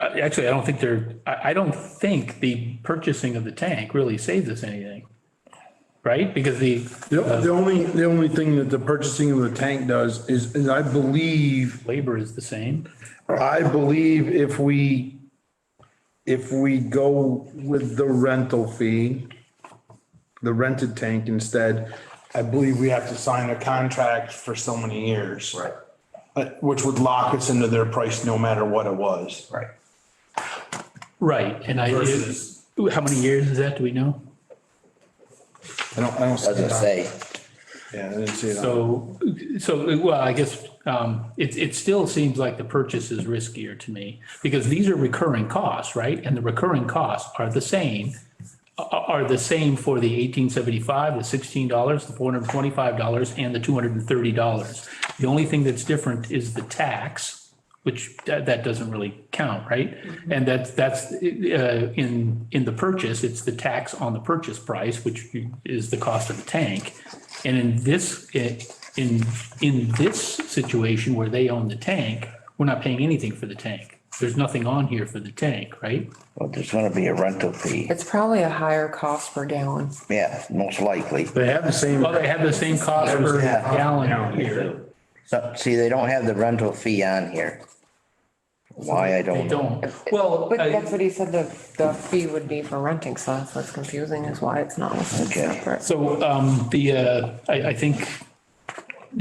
Uh, Actually, I don't think they're, I, I don't think the purchasing of the tank really saves us anything. Right? Because the, The, the only, the only thing that the purchasing of the tank does is, is I believe, labor is the same. I believe if we, if we go with the rental fee, the rented tank instead, I believe we have to sign a contract for so many years. Right. Uh, Which would lock us into their price no matter what it was. Right. Right, and I, Versus- how many years is that, do we know? I don't, I don't. see Doesn't that. say. Yeah, I didn't see that. So, so, well, I guess, um, it, it still seems like the purchase is riskier to me, because these are recurring costs, right? And the recurring costs are the same, a- a- are the same for the eighteen seventy-five, the sixteen dollars, the four hundred and twenty-five dollars, and the two hundred and thirty dollars. The only thing that's different is the tax, which that, that doesn't really count, right? And that's, that's, uh, in, in the purchase, it's the tax on the purchase price, which is the cost of the tank. And in this, in, in this situation where they own the tank, we're not paying anything for the tank. There's nothing on here for the tank, right? Well, there's gonna be a rental fee. It's probably a higher cost per gallon. Yeah, most likely. They have the same. Well, they have the same cost per Yeah. gallon here. So, see, they don't have the rental fee on here. Why, I They don't know. don't. Well, uh, But that's I- what he said the, the fee would be for renting, so that's what's confusing is why it's not listed Okay. separate. so, um, the, uh, I, I think,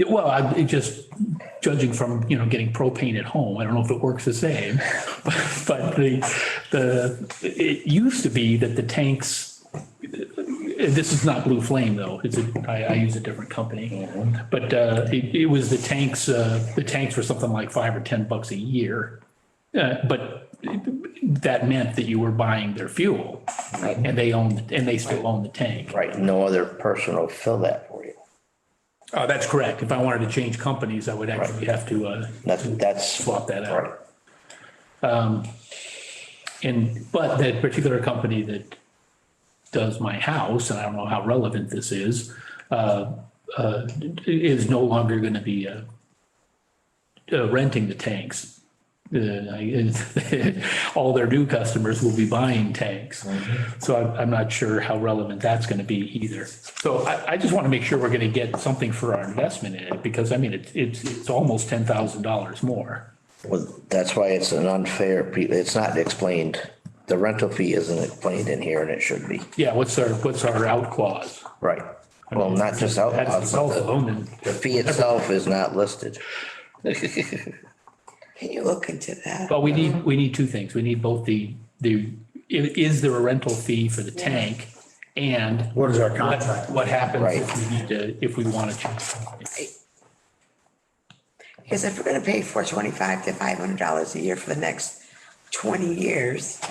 well, I, it just judging from, you know, getting propane at home, I don't know if it works the same. But, but the, the, it used to be that the tanks this is not Blue Flame though, it's a, I, I use a different company. But, uh, it, it was the tanks, uh, the tanks were something like five or 10 bucks a year. Uh, but that meant that you were buying their fuel and they owned, and they still own the tank. Right, no other person will fill that for you. Uh, that's correct. If I wanted to change companies, I would actually have to, uh, That's, that's. swap that out. Right. And, but that particular company that does my house, and I don't know how relevant this is, uh, uh, is no longer going to be uh, uh, renting the tanks. Uh, I- All their new customers will be buying tanks. So I'm, I'm not sure how relevant that's going to be either. So I, I just want to make sure we're going to get something for our investment in it, because I mean, it's, it's, it's almost $10,000 more. Well, that's why it's an unfair, pe- it's not explained. The rental fee isn't explained in here and it should be. Yeah, what's our, what's our out clause? Right. Well, not just out, uh, That's the cell phone and. the fee itself is not listed. Can you look into that? Well, we need, we need two things. We need both the, the, i- is there a rental fee for the tank? And What is our what, what happens if Right. we need to, if we want to change? Because if we're gonna pay four twenty-five to five hundred dollars a year for the next twenty years,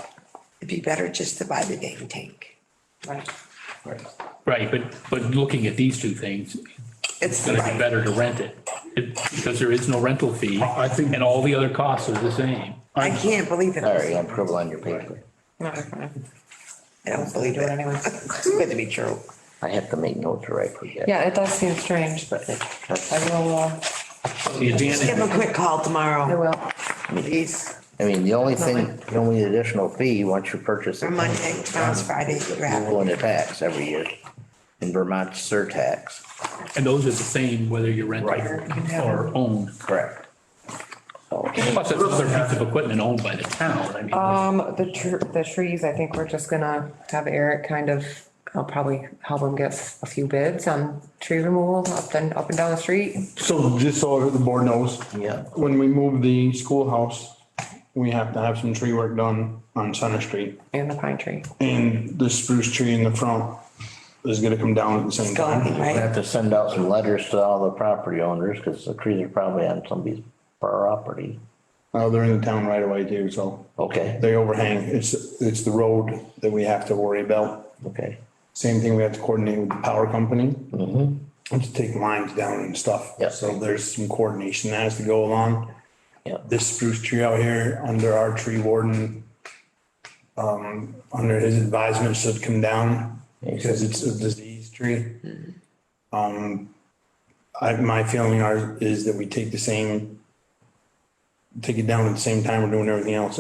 it'd be better just to buy the dang tank. Right. Right, but, but looking at these two things, It's it's gonna be right. better to rent it. It- Because there is no rental fee. I think- And all the other costs are the same. I can't believe it. Sorry, I'm I scribbling on your paper. Not recommended. don't believe it. It's good to be true. I have to make notes or I forget. Yeah, it does seem strange, but it- I will, uh, The Just give advantage, him a quick call I tomorrow, will. please, I mean, the only thing, the only additional fee, once you purchase or it, Monday, tomorrow's Friday, you're grab. going to tax every year. In Vermont, surtax. and those are the same whether you rent Right. or own. Correct. So, Plus, that's another piece of equipment owned by the town. I mean, Um, the tr- the trees, I think we're just gonna have Eric kind of, I'll probably help him get a few bids on tree removal up and, up and down the street. So just so the board knows. Yeah. When we move the schoolhouse, we have to have some tree work done on Center Street. And the pine tree. And the spruce tree in the front is gonna come down at the same time. Going, We right? have to send out some letters to all the property owners, because the trees are probably on somebody's property. Uh, they're in the town right away too, so Okay, they overhang. It's, it's the road that we have to worry about. okay, Same thing, we have to coordinate with the power company. And to take lines down and stuff. Yeah. So there's some coordination that has to go along. yeah. this spruce tree out here under our tree warden. Um, under his advisement should come down because it's a disease tree. Um, I, my feeling are, is that we take the same, take it down at the same time we're doing everything else.